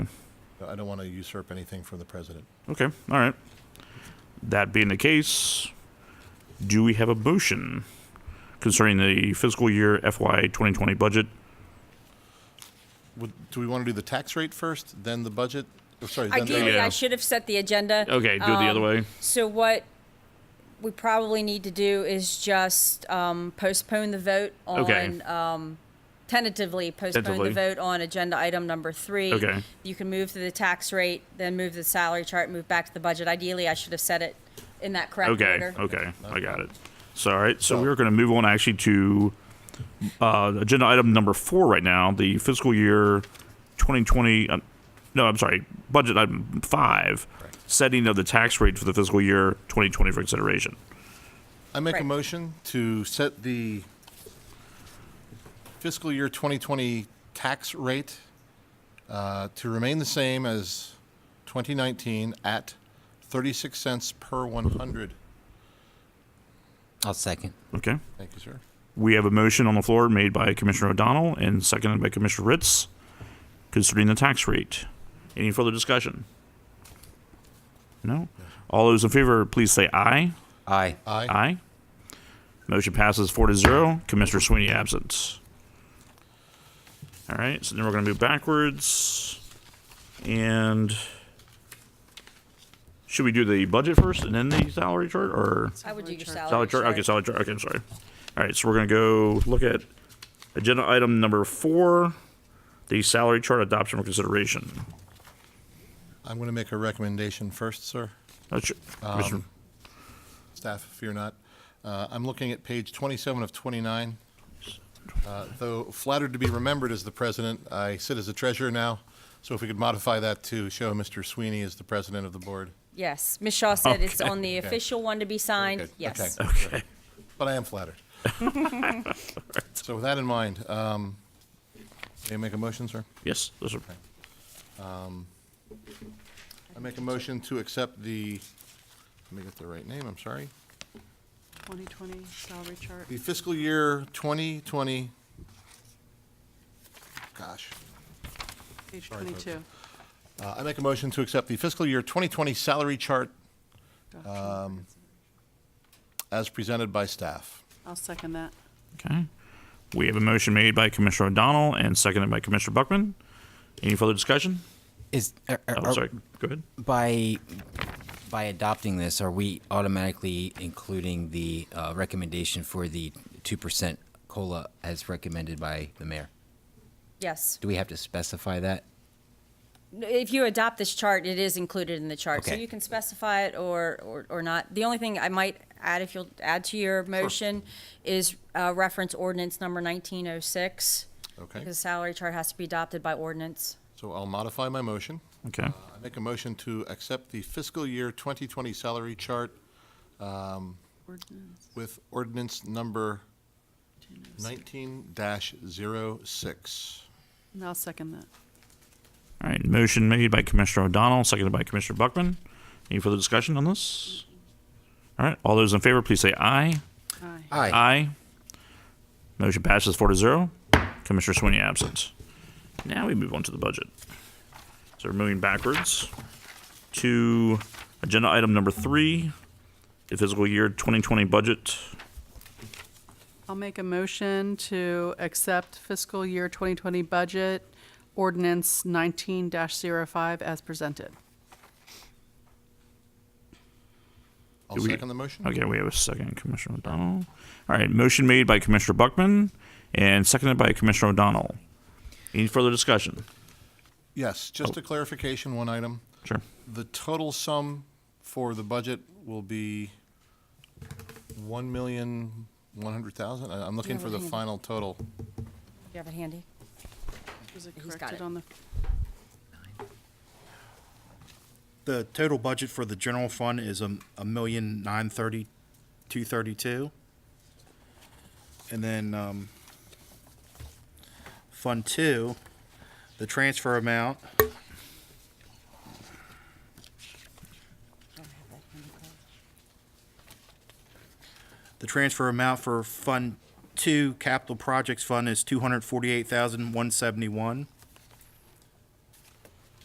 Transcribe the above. I don't want to usurp anything from the president. Okay, all right. That being the case, do we have a motion concerning the fiscal year FY 2020 budget? Would, do we want to do the tax rate first, then the budget? Oh, sorry, then the- Yeah. Ideally, I should have set the agenda. Okay, do it the other Um, way. So what we probably need to do is just um, postpone the vote Okay. on, um, tentatively postpone Tentatively. the vote on agenda item number three. Okay. You can move to the tax rate, then move to the salary chart, move back to the budget. Ideally, I should have set it in that correct Okay, order. okay, I got it. So, all right, so So- we're going to move on actually to uh, agenda item number four right now, the fiscal year 2020, uh, no, I'm sorry, budget item five, setting of the tax rate for the fiscal year 2020 for consideration. I make a Right. motion to set the fiscal year 2020 tax rate uh, to remain the same as 2019 at 36 cents per 100. I'll second. Okay? Thank you, sir. We have a motion on the floor made by Commissioner O'Donnell and seconded by Commissioner Ritz concerning the tax rate. Any further discussion? No? All those in favor, please say aye. Aye. Aye. Aye. Motion passes four to zero. Commissioner Sweeney absent. All right, so then we're going to move backwards. And should we do the budget first and then the salary chart or? I would do your salary. Solid chart. Okay, solid chart. Okay, I'm sorry. All right, so we're gonna go look at agenda item number four, the salary chart adoption for consideration. I'm going to make a recommendation first, sir. That's your- Commissioner- staff, if you're not. Uh, I'm looking at page 27 of 29. Uh, Though flattered to be remembered as the president, I sit as the treasurer now, so if we could modify that to show Mr. Sweeney as the president of the board. Yes, Ms. Shaw said it's on the Okay. official one to be signed. Okay, Yes. okay. But I am flattered. So with that in mind, um, may I make a motion, sir? yes, those are- I make a motion to accept the, let me get the right name, I'm sorry. 2020 salary chart. The fiscal year 2020, gosh, Page Sorry, folks. 22. Uh, I make a motion to accept the fiscal year 2020 salary chart Um, Gotcha. as presented by staff. I'll second that. okay. We have a motion made by Commissioner O'Donnell and seconded by Commissioner Buckman. Any further discussion? Is are, are- Oh, are- sorry. Go ahead. by by adopting this, are we automatically including the uh, recommendation for the two percent cola as recommended by the mayor? Yes. Do we have to specify that? If you adopt this chart, it is included in the chart, so Okay. you can specify it or, or, or not. The only thing I might add, if you'll add to your motion, is uh, reference ordinance number nineteen oh six. Okay, The salary chart has to be adopted by ordinance. so I'll modify my motion. Okay. I make a motion to accept the fiscal year 2020 salary chart Ordinance with ordinance number 206. 19-06. And I'll second that. All right, motion made by Commissioner O'Donnell, seconded by Commissioner Buckman. Any further discussion on this? All right, all those in favor, please say aye. Aye. Aye. Aye. Motion passes four to zero. Commissioner Sweeney absent. Now we move on to the budget. So we're moving backwards to agenda item number three, the fiscal year 2020 budget. I'll make a motion to accept fiscal year 2020 budget ordinance 19-05 as presented. I'll Do we- second the motion. Okay, we have a second, Commissioner O'Donnell. All right, motion made by Commissioner Buckman and seconded by Commissioner O'Donnell. Any further discussion? Yes, just Oh. a clarification, one item. Sure. The total sum for the budget will be 1,100,000? I- I'm looking Yeah, for the we're hanging. final total. Do you have it handy? Was it He's got corrected it. on the, The total budget for the general fund is a, a million nine thirty, two thirty-two. And then, um, Fund Two, the transfer amount The transfer amount for Fund Two Capital Projects Fund is two hundred forty-eight thousand, one seventy-one.